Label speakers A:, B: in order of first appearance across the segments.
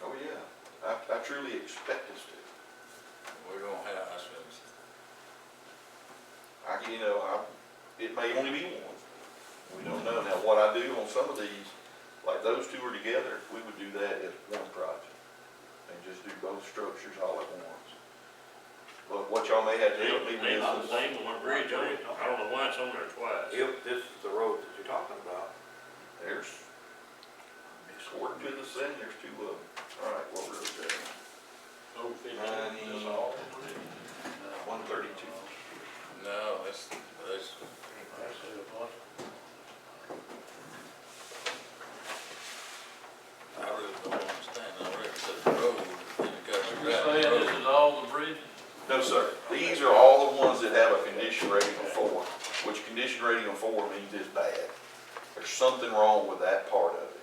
A: Oh, truly expect us to.
B: We're gonna have ourselves.
A: I, can- you know, I, it may only be one. We don't know. Now, what I do on some of these, like those two are together, we would do that as one project. And just do both structures all at once. But what y'all may have to help me with
C: They got the
A: is,
C: same one bridge on it, I don't know why it's on there twice.
D: If this is the road that you're talking about,
A: there's, according to the thing, there's two of them. All right, what road is that?
C: Over fifteen,
A: Ninety-
C: that's all.
A: One thirty-two.
B: No, that's, that's, I really don't understand, I reckon that the road, and it got you right, the road.
C: is all the bridges?
A: No, sir. These are all the ones that have a condition rating of four, which condition rating of four means it's bad. There's something wrong with that part of it.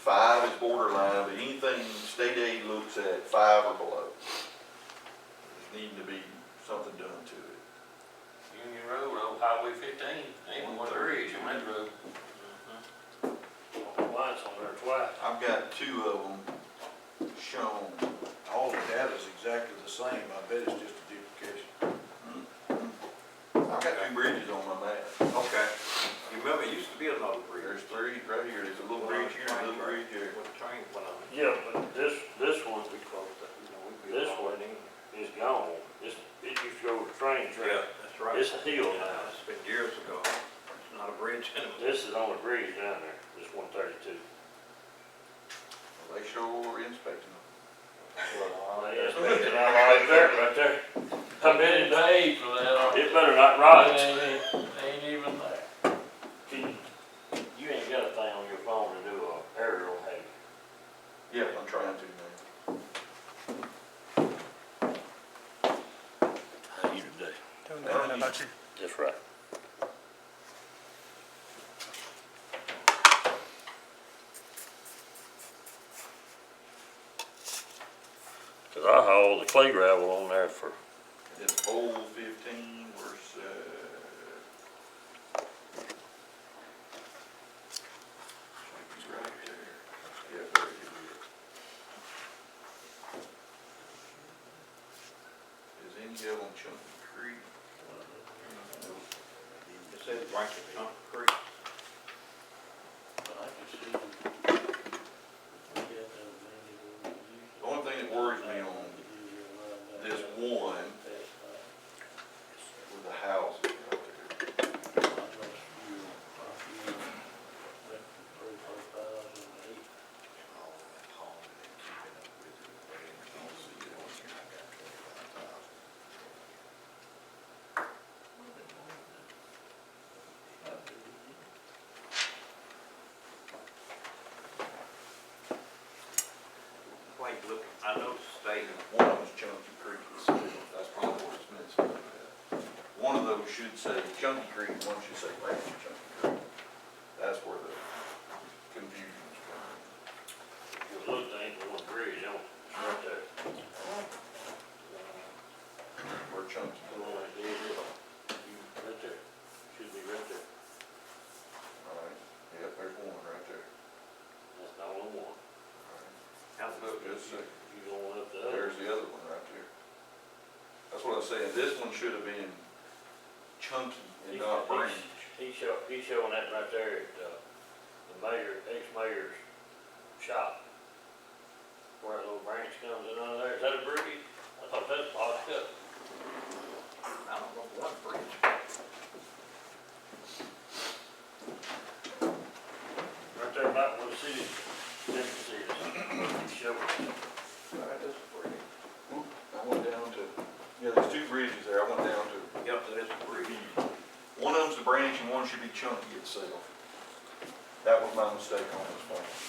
A: Five is borderline, but anything state aid looks at, five or below. There's needing to be something done to it.
C: Union Road, old Highway fifteen, ain't one bridge on that road. Why it's on there twice?
A: I've got two of them shown.
D: all the data's exactly the same, I bet it's just a duplication.
A: I've got two bridges on my map.
D: Okay, you remember, it used to be another bridge.
A: There's three right here. There's a little bridge here and a little bridge here.
D: When the train went on,
C: Yeah, but this, this one
D: we closed it, you know, we built
C: This
D: all
C: one,
D: that in.
C: is gone, this, it used to go to train
D: Yeah,
C: track,
D: that's right.
C: it's a hill
D: Yeah,
C: now,
D: It's been years ago, it's not a bridge anymore.
C: this is on the bridge down there, this one thirty-two.
A: They sure are inspecting them.
C: Yes, and I'm right there, right there.
E: I bet it paid for that.
C: It better not rot.
E: It ain't, ain't even there.
C: Can- You ain't got a thing on your phone to do a aerial, have you?
A: Yeah, I'm trying to, man.
C: How you today?
F: Doing good, how about you?
C: That's right. Cause I hauled the clay gravel on there for,
A: It's old fifteen versus, uh. It's right there. Yeah, there it is. Is any of them Chunk Creek?
D: It says Rankin Pump Creek.
E: But I can see them. Yeah, that was
A: The only thing that worries me on
E: maybe
A: this one with the houses right there.
D: Wait, look, I noticed they,
A: One of them's Chunky Creek, that's probably what it's meant to be. One of those should say Chunky Creek, one should say Rankin Chunky Creek. That's where the confusion's coming.
C: the little thing, the one bridge on, it's right there.
A: Where Chunky,
C: The one I did, you- right there, should be right there,
A: alright, yep, there's one right there.
C: that's the only one,
D: how's it look?
A: Just a-
C: you going up the other.
A: There's the other one right there. That's what I'm saying, this one should have been Chunky and not Rankin.
C: He's show, he's showing that right there at, uh, the mayor, ex-mayor's shop. Where that little branch comes in under there, is that a brookie? I thought that's boxed up.
D: I don't know, one bridge.
C: Right there about where the city, different cities, he's showing.
A: Alright, that's pretty. I went down to, yeah, there's two bridges there, I went down to
D: Yep, that is a bridge.
A: One of them's the branch and one should be chunky itself. That was my mistake on this one.